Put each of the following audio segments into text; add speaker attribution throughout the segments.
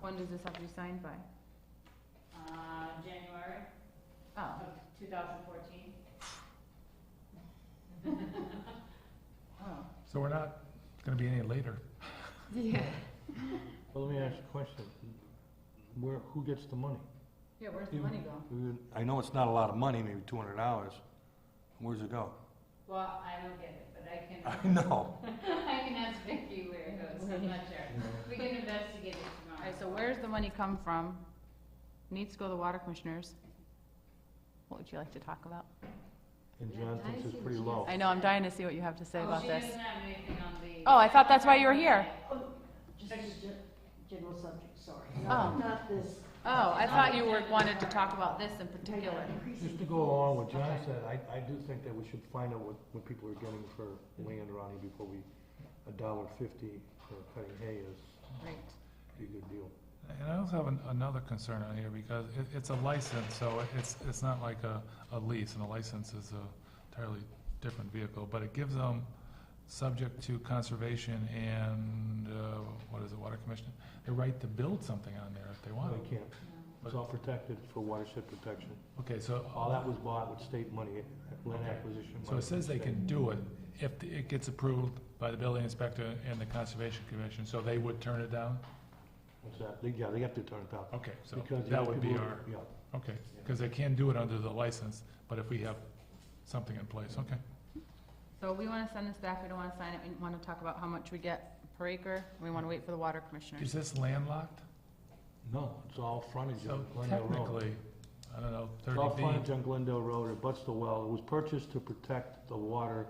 Speaker 1: When does this have to be signed by?
Speaker 2: uh, January
Speaker 1: Oh,
Speaker 2: of two thousand fourteen.
Speaker 1: oh,
Speaker 3: So we're not gonna be any later.
Speaker 1: yeah.
Speaker 4: Well, let me ask you a question. Where, who gets the money?
Speaker 1: Yeah, where's the money go?
Speaker 4: You- I know it's not a lot of money, maybe two hundred dollars. Where's it go?
Speaker 2: Well, I don't get it, but I can,
Speaker 4: I know.
Speaker 2: I can ask Vicky where it goes, I'm not sure. We can investigate it
Speaker 1: All
Speaker 2: tomorrow.
Speaker 1: right, so where's the money come from? Needs to go to the water commissioners. What would you like to talk about?
Speaker 4: And John thinks it's pretty low.
Speaker 1: I know, I'm dying to see what you have to say
Speaker 2: Oh,
Speaker 1: about
Speaker 2: She
Speaker 1: this.
Speaker 2: doesn't have anything on the.
Speaker 1: Oh, I thought that's why you were here.
Speaker 5: Oh, Just a gen- general subject, sorry.
Speaker 1: Oh.
Speaker 5: Not this.
Speaker 1: Oh, I thought you were, wanted to talk about this in particular.
Speaker 4: Just to go along with John said, I, I do think that we should find out what, what people are getting for land around here before we, a dollar fifty for cutting hay is
Speaker 1: Right.
Speaker 4: a good deal.
Speaker 3: And I also have an- another concern on here because it, it's a license, so it's, it's not like a, a lease. And a license is a entirely different vehicle, but it gives them, subject to conservation and, uh, what is it, water commission, the right to build something on there if they want.
Speaker 4: They can't. It's all protected for watershed protection.
Speaker 3: Okay, so.
Speaker 4: All that was bought with state money, land acquisition money.
Speaker 3: So it says they
Speaker 4: from the state.
Speaker 3: can do it if it gets approved by the building inspector and the conservation commission, so they would turn it down?
Speaker 4: What's that? They- Yeah, they have to turn it down.
Speaker 3: Okay, so
Speaker 4: Because the
Speaker 3: that
Speaker 4: other
Speaker 3: would be
Speaker 4: people-
Speaker 3: our,
Speaker 4: Yeah.
Speaker 3: okay, because they can do it under the license, but if we have something in place, okay.
Speaker 1: So we want to send this back, we don't want to sign it, we want to talk about how much we get per acre, we want to wait for the water
Speaker 3: Is
Speaker 1: commissioners.
Speaker 3: this landlocked?
Speaker 4: No, it's all frontage
Speaker 3: So
Speaker 4: on Glendale Road.
Speaker 3: technically, I don't know,
Speaker 4: It's all
Speaker 3: thirty
Speaker 4: frontage
Speaker 3: feet.
Speaker 4: on Glendale Road, it butts the well. It was purchased to protect the water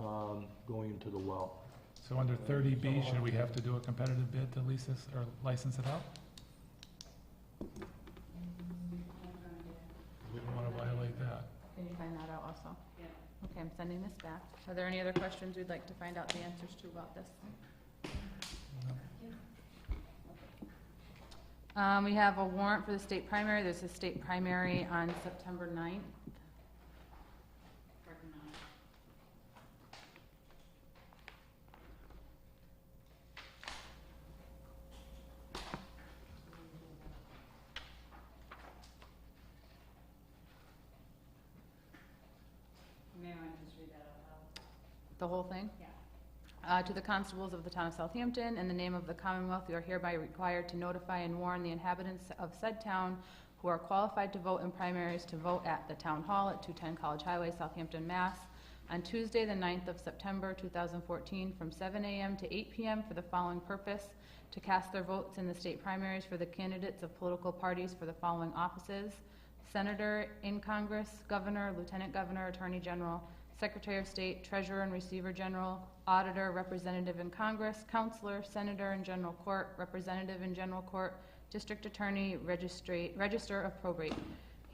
Speaker 4: um, going into the well.
Speaker 3: So under thirty B, should we have to do a competitive bid to lease this or license it out? We don't want to violate that.
Speaker 1: Can you find that out also?
Speaker 2: Yeah.
Speaker 1: Okay, I'm sending this back. Are there any other questions we'd like to find out the answers to about this? Um, we have a warrant for the state primary, there's a state primary on September 9th.
Speaker 2: Working on it. May I just read that out loud?
Speaker 1: the whole thing?
Speaker 2: Yeah.
Speaker 1: Uh, to the constables of the town of Southampton, in the name of the Commonwealth, you are hereby required to notify and warn the inhabitants of said town who are qualified to vote in primaries to vote at the town hall at 210 College Highway, Southampton, Mass. on Tuesday, the 9th of September, 2014, from 7 a.m. to 8 p.m. for the following purpose: to cast their votes in the state primaries for the candidates of political parties for the following offices: Senator in Congress, Governor, Lieutenant Governor, Attorney General, Secretary of State, Treasurer and Receiver General, Auditor, Representative in Congress, Counselor, Senator in General Court, Representative in General Court, District Attorney, Registrate, Register of Probate.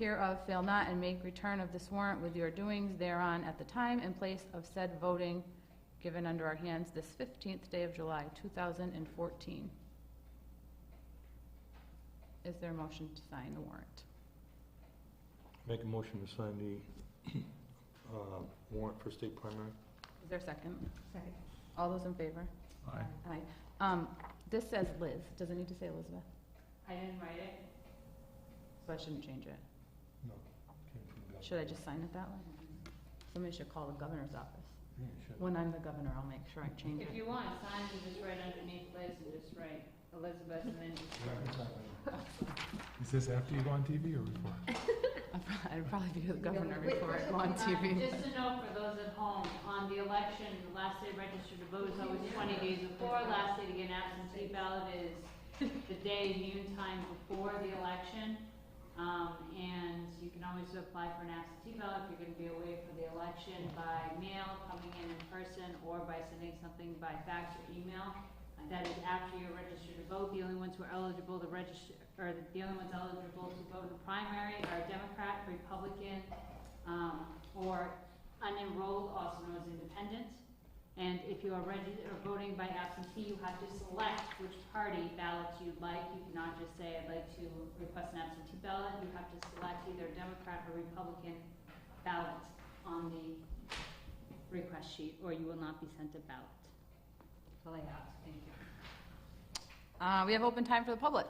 Speaker 1: Hereof fail not and make return of this warrant with your doings thereon at the time and place of said voting given under our hands this fifteenth day of July, two thousand and fourteen. Is there a motion to sign the warrant?
Speaker 4: Make a motion to sign the uh, warrant for state primary.
Speaker 1: Is there a second?
Speaker 5: Second.
Speaker 1: All those in favor?
Speaker 3: Aye.
Speaker 1: Aye. Um, this says Liz, does it need to say Elizabeth?
Speaker 2: I didn't write it.
Speaker 1: So I shouldn't change it. Should I just sign it that way? Somebody should call the governor's office.
Speaker 4: Yeah, you should.
Speaker 1: When I'm the governor, I'll make sure I change
Speaker 2: If
Speaker 1: it.
Speaker 2: you want, sign and just write underneath Liz and just write Elizabeth and then just.
Speaker 3: Is this after you go on TV or before?
Speaker 1: I'd prob- I'd probably be the governor
Speaker 2: Wait,
Speaker 1: before I
Speaker 2: wait,
Speaker 1: go on
Speaker 2: uh,
Speaker 1: TV.
Speaker 2: Just a note for those at home, on the election, the last day registered to vote is always twenty days before, last day to get an absentee ballot is the day, noon time before the election. Um, and you can always apply for an absentee ballot if you're gonna be away for the election by mail, coming in in person, or by sending something by fax or email. Uh, That is after you're registered to vote, the only ones who are eligible to register, or the- the only ones eligible to vote in the primary are Democrat, Republican, um, or unenrolled, also known as independent. And if you are registered or voting by absentee, you have to select which party ballots you'd like. You cannot just say, I'd like to request an absentee ballot. You have to select either Democrat or Republican ballot on the request sheet, or you will not be sent a ballot. That's all I have, thank you.
Speaker 1: Uh, we have open time for the public.